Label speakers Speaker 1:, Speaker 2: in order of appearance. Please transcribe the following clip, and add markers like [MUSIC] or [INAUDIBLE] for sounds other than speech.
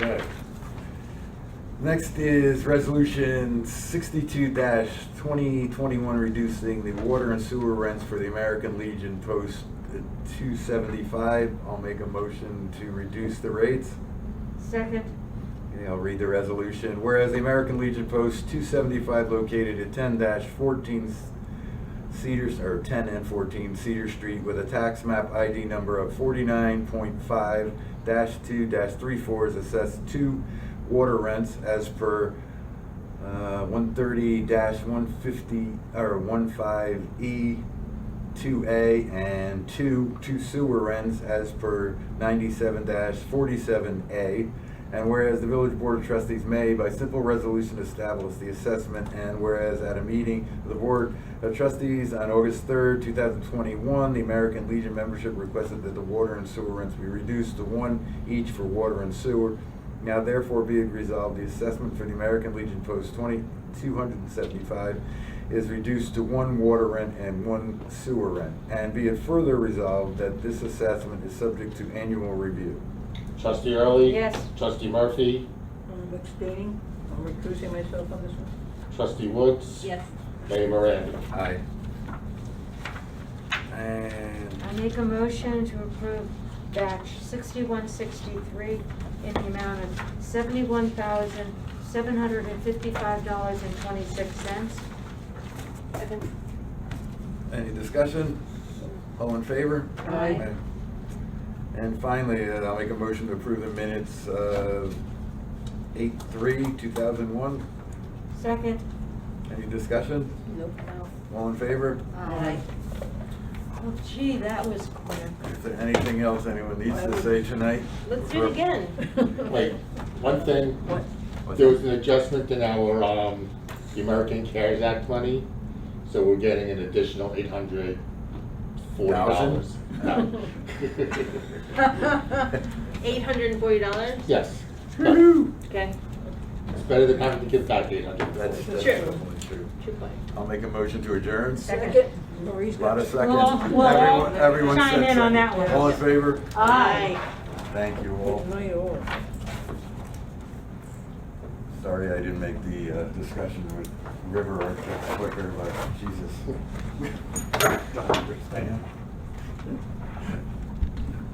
Speaker 1: Next is resolution sixty-two twenty twenty-one, reducing the water and sewer rents for the American Legion Post two seventy-five. I'll make a motion to reduce the rates.
Speaker 2: Second,
Speaker 1: Okay, I'll read the resolution. Whereas the American Legion Post 275 located at 10-14 Cedar, or 10 and 14 Cedar Street with a tax map ID number of 49.5-2-34 is assessed two water rents as per uh, 130-150, or E 15E 2A and 2, 2 sewer rents as per 97-47A. And whereas the Village Board of Trustees may, by simple resolution, establish the assessment, and whereas at a meeting of the Board of Trustees on August 3rd, 2021, the American Legion membership requested that the water and sewer rents be reduced to one each for water and sewer. Now therefore be it resolved, the assessment for the American Legion Post 2275 is reduced to one water rent and one sewer rent. And be it further resolved that this assessment is subject to annual review.
Speaker 3: Trustee Early?
Speaker 2: Yes.
Speaker 3: Trustee Murphy?
Speaker 4: I'm abstaining, I'm recusing myself on this one.
Speaker 3: Trustee Woods?
Speaker 2: yes.
Speaker 3: Mayor Miranda?
Speaker 1: Aye. And
Speaker 2: I make a motion to approve batch sixty-one sixty-three in the amount of seventy-one thousand, seven hundred and fifty-five dollars and twenty-six cents.
Speaker 1: any discussion? All in favor?
Speaker 2: Aye.
Speaker 1: And finally, uh, I'll make a motion to approve the minutes of eight three, two thousand one.
Speaker 2: Second,
Speaker 1: Any discussion?
Speaker 4: Nope.
Speaker 2: no.
Speaker 1: All in favor?
Speaker 2: Aye. Oh gee, that was quick.
Speaker 1: Is there anything else anyone needs to say tonight?
Speaker 2: Let's do it again. [LAUGHS]
Speaker 4: [LAUGHS]
Speaker 3: Wait, one thing.
Speaker 4: What?
Speaker 1: What's
Speaker 3: There
Speaker 1: that?
Speaker 3: was an adjustment in our, um, the American CARES Act money, so we're getting an additional eight hundred forty dollars.
Speaker 1: Thousand? [LAUGHS]
Speaker 2: Eight hundred and forty dollars?
Speaker 3: Yes,
Speaker 1: Woo-hoo.
Speaker 2: Okay,
Speaker 3: it's better than having to give back eight hundred
Speaker 1: That's,
Speaker 3: forty.
Speaker 1: that's
Speaker 2: Sure.
Speaker 1: definitely true.
Speaker 2: two point.
Speaker 1: I'll make a motion to adjourn.
Speaker 2: Second.
Speaker 4: Marie's got
Speaker 1: Lot of
Speaker 4: it.
Speaker 1: seconds.
Speaker 2: Well, well,
Speaker 1: Everyone, everyone
Speaker 2: chime
Speaker 1: said
Speaker 2: in on
Speaker 1: second.
Speaker 2: that one. Ah.
Speaker 1: All in favor?
Speaker 2: Aye.
Speaker 1: Thank you all.
Speaker 4: It's my own.
Speaker 1: Sorry I didn't make the uh, discussion with River or [LAUGHS] quicker, but Jesus. Don't understand.